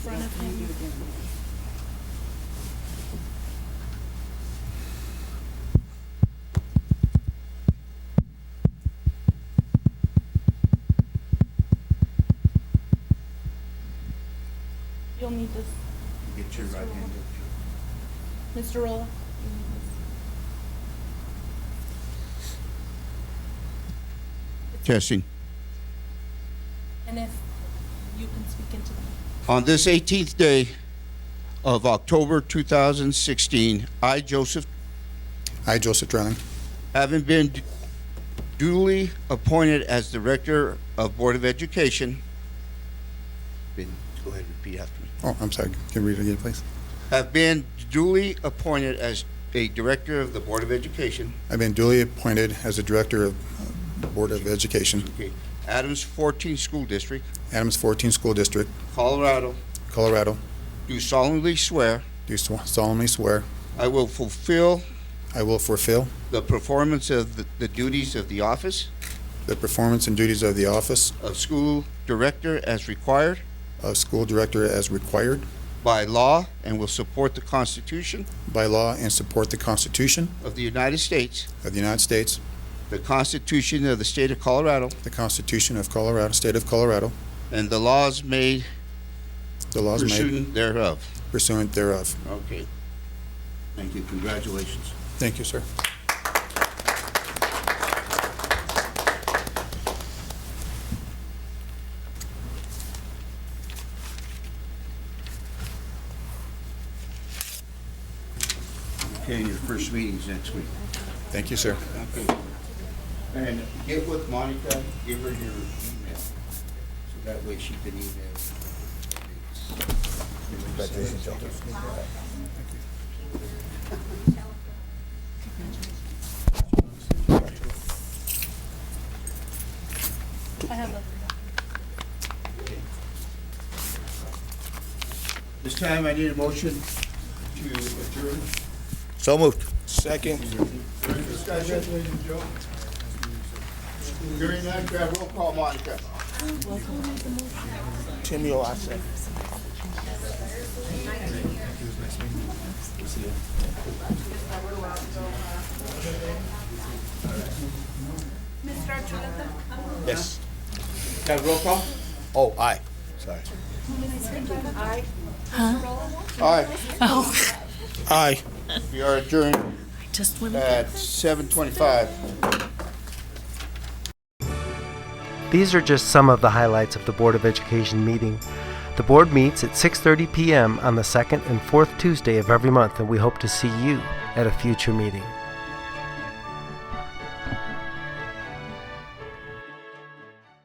front of him. You'll need this, Get your right hand up. Mr. Rolla. Testing. And if you can speak into the On this 18th day of October 2016, I, Joseph, I, Joseph Drennan, having been duly appointed as Director of Board of Education, been, go ahead and repeat after me. oh, I'm sorry, can you read it again, please? Have been duly appointed as a Director of the Board of Education, I've been duly appointed as the Director of uh, Board of Education, okay, Adams 14 School District, Adams 14 School District, Colorado, Colorado. do solemnly swear Do solemnly swear I will fulfill I will fulfill the performance of the- the duties of the office the performance and duties of the office of school director as required of School Director as required by law and will support the Constitution by law and support the Constitution of the United States, of the United States, the Constitution of the State of Colorado, the Constitution of Colorado, State of Colorado, and the laws made the laws made pursuant thereof. pursuant thereof. Okay. Thank you. Congratulations. Thank you, sir. Okay, and your first meeting's next week. Thank you, sir. Okay. And get with Monica, give her your email, so that way she can email. I have a This time I need a motion to adjourn. So moved. Any discussion? Hearing none, can I have roll call, Monica? Timmy Olasa. Yes. Can I have roll call? Oh, aye. Sorry. All right, Aye. we are adjourned Oh. just went at seven twenty-five. These are just some of the highlights of the Board of Education meeting. The board meets at 6:30 p.m. on the second and fourth Tuesday of every month and we hope to see you at a future meeting.